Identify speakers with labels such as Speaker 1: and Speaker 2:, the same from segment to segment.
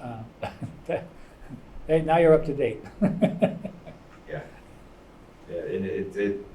Speaker 1: Uh, Hey, now you're up to date.
Speaker 2: Yeah. Yeah, and it, it,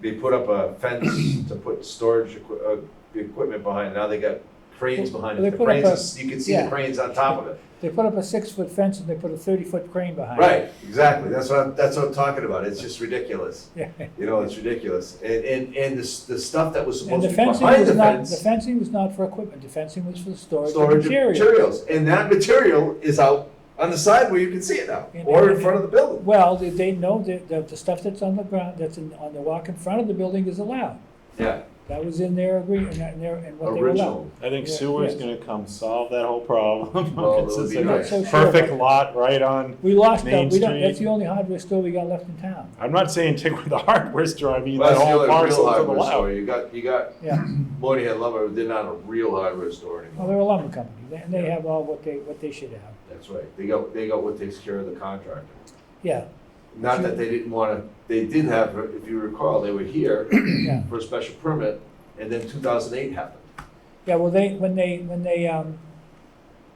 Speaker 2: they put up a fence to put storage equi- uh, the equipment behind, now they got cranes behind
Speaker 1: They
Speaker 2: it. The
Speaker 1: put up
Speaker 2: cranes,
Speaker 1: a-
Speaker 2: is- you can see the
Speaker 1: yeah.
Speaker 2: cranes on top of it.
Speaker 1: They put up a six-foot fence and they put a thirty-foot crane behind it.
Speaker 2: Right, exactly, that's what I'm, that's what I'm talking about, it's just ridiculous.
Speaker 1: Right.
Speaker 2: You know, it's ridiculous, and, and, and the, s- the stuff that was
Speaker 1: And
Speaker 2: supposed
Speaker 1: the
Speaker 2: to be
Speaker 1: fencing
Speaker 2: behind the
Speaker 1: was not, the
Speaker 2: fence.
Speaker 1: fencing was not for equipment, the fencing was for the storage of
Speaker 2: Storage of
Speaker 1: material.
Speaker 2: materials, and that material is out on the side where you can see it now,
Speaker 1: And-
Speaker 2: or in
Speaker 1: and-
Speaker 2: front of the building.
Speaker 1: Well, they, they know that, that the stuff that's on the ground, that's in, on the walk in front of the building is allowed.
Speaker 2: Yeah,
Speaker 1: That was in their agreement, and their, and what they were allowed.
Speaker 2: original,
Speaker 3: I think
Speaker 1: Yeah,
Speaker 3: sewer's
Speaker 1: yes.
Speaker 3: gonna come solve that whole problem.
Speaker 2: Well, that
Speaker 3: It's
Speaker 2: would
Speaker 3: just
Speaker 2: be
Speaker 3: like a
Speaker 2: nice.
Speaker 1: So sure
Speaker 3: Perfect
Speaker 1: about-
Speaker 3: lot right on,
Speaker 1: We lost, that.
Speaker 3: Main
Speaker 1: we don't, that's
Speaker 3: Street.
Speaker 1: the only hardware store we got left in town,
Speaker 3: I'm not saying take away the hardware store, I mean,
Speaker 2: Well,
Speaker 3: that
Speaker 2: that's the
Speaker 3: whole
Speaker 2: other real
Speaker 3: parcel to the
Speaker 2: hardware store,
Speaker 3: left.
Speaker 2: you got, you got
Speaker 1: yeah.
Speaker 2: Modi had lumber, but they're not a real hardware store
Speaker 1: Well,
Speaker 2: anymore.
Speaker 1: they're a lumber company, They- and they have all what they, what they should have,
Speaker 2: That's right. They got, they got what takes care of the contractor.
Speaker 1: yeah,
Speaker 2: Not that they didn't wanna, they did have, if you recall, they were here
Speaker 1: yeah.
Speaker 2: for a special permit, and then two thousand eight happened.
Speaker 1: Yeah, well, they, when they, when they, um,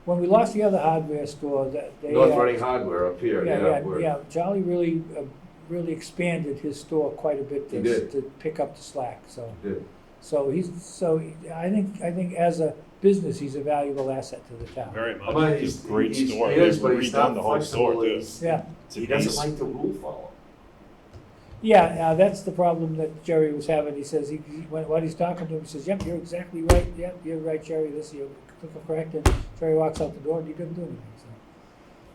Speaker 1: when we lost the other hardware store, that they.
Speaker 2: North
Speaker 1: uh,
Speaker 2: Reading Hardware up here, yeah,
Speaker 1: Yeah, yeah,
Speaker 2: where,
Speaker 1: yeah, Jolly really, uh, really expanded his store quite a bit
Speaker 2: He
Speaker 1: to,
Speaker 2: did.
Speaker 1: to pick up the slack, so.
Speaker 2: did.
Speaker 1: So he's, so he- I think, I think as a business, he's a valuable asset to the town.
Speaker 3: Very much,
Speaker 2: But
Speaker 3: it's
Speaker 2: he's,
Speaker 3: a great
Speaker 2: he's, he
Speaker 3: store, they've
Speaker 2: is, but he's not
Speaker 3: redone the whole store
Speaker 2: flexible.
Speaker 3: too.
Speaker 2: He's-
Speaker 1: Yeah,
Speaker 3: It's a
Speaker 2: He doesn't
Speaker 3: beast.
Speaker 2: like the rule follow.
Speaker 1: yeah, now that's the problem that Jerry was having, he says, he, he- when, when he's talking to him, he says, yep, you're exactly right, yep, you're right, Jerry, this, you're correct, and Jerry walks out the door and he didn't do anything, so.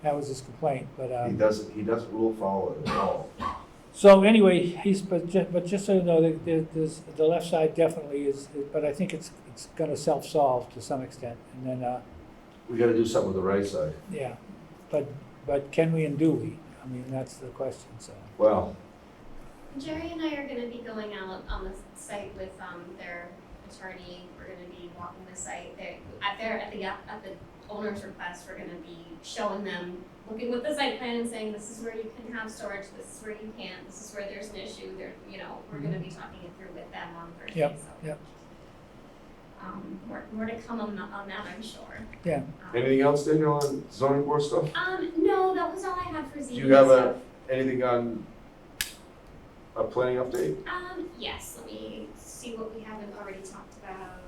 Speaker 1: That was his complaint, but, um.
Speaker 2: He doesn't, he doesn't rule follow at all.
Speaker 1: So anyway, he's, but ju- but just so you know, there- there, there's, the left side definitely is, but I think it's, it's gonna self-solve to some extent, and then, uh,
Speaker 2: We gotta do something with the right side.
Speaker 1: yeah. But, but can we and do we? I mean, that's the question, so.
Speaker 2: Well,
Speaker 4: Jerry and I are gonna be going out on the site with, um, their attorney, we're gonna be walking the site, they, at their, at the, at the owner's request, we're gonna be showing them, looking with the site plan and saying, this is where you can have storage, this is where you can't, this is where there's an issue, there, you know, we're gonna be talking it through with them on Thursday, so.
Speaker 1: Mm-hmm. Yep, yep.
Speaker 4: Um, more, more to come on, on that, I'm sure.
Speaker 1: Yeah.
Speaker 4: Um,
Speaker 2: anything else, Daniel, on zoning board stuff?
Speaker 4: Um, no, that was all I had for ZBA stuff.
Speaker 2: Do you have a, anything on a planning update?
Speaker 4: Um, yes, let me see what we haven't already talked about.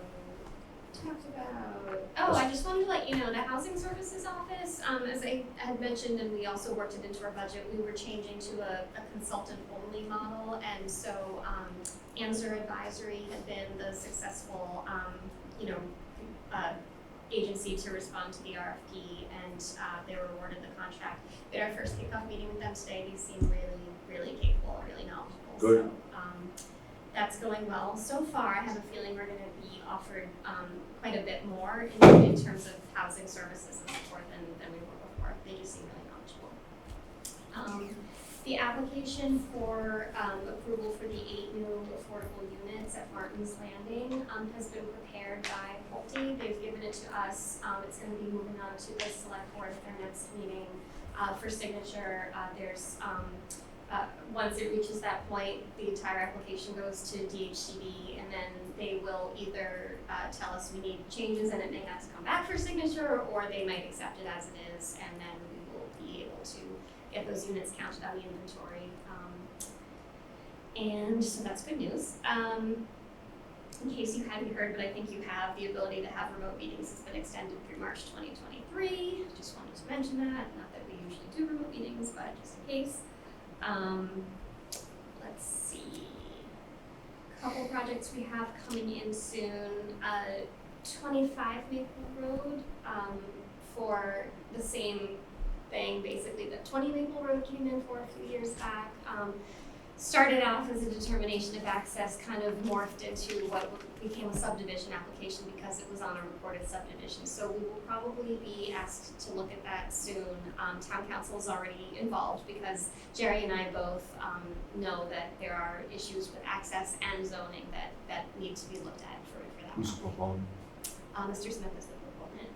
Speaker 4: Talked about, oh, I just wanted to let you know, the housing services office, um, as I had mentioned, and we also worked it into our budget, we were changing to a, a consultant only model, and so, um, Answer Advisory had been the successful, um, you know, uh, agency to respond to the RFP, and, uh, they were awarded the contract. We had our first kickoff meeting with them today, they seem really, really capable, really knowledgeable, so,
Speaker 2: Good.
Speaker 4: um, that's going well so far. I have a feeling we're gonna be offered um quite a bit more in in terms of housing services and support than than we were before. They just seem really knowledgeable. Um the application for um approval for the eight new affordable units at Martin's Landing um has been prepared by Pulte. They've given it to us. Um it's gonna be moving on to the select board at their next meeting uh for signature. Uh there's um uh, once it reaches that point, the entire application goes to DHCD and then they will either, uh, tell us we need changes and it may have to come back for signature or they might accept it as it is and then we will be able to get those units counted on the inventory. Um, and so that's good news. Um, in case you hadn't heard, but I think you have, the ability to have remote meetings has been extended through March twenty twenty-three. Just wanted to mention that, not that we usually do remote meetings, but just in case. Um, let's see. Couple projects we have coming in soon. Uh, twenty-five Maple Road, um, for the same thing, basically, that twenty Maple Road came in for a few years back. Um, started off as a determination of access, kind of morphed into what became a subdivision application because it was on a recorded subdivision. So we will probably be asked to look at that soon. Um, town council's already involved because Jerry and I both um know that there are issues with access and zoning that that need to be looked at for for that.
Speaker 2: Who's performing?
Speaker 4: Uh, Mr. Smith is the proponent.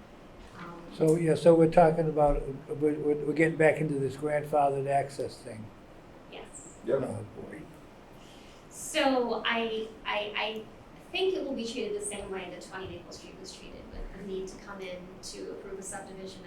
Speaker 4: Um,
Speaker 1: So, yeah, so we're talking about, we're, we're we're getting back into this grandfathered access thing.
Speaker 4: yes.
Speaker 2: Yeah.
Speaker 1: Oh, boy.
Speaker 4: So I I I think it will be treated the same way that twenty Maple Street was treated with the need to come in to approve a subdivision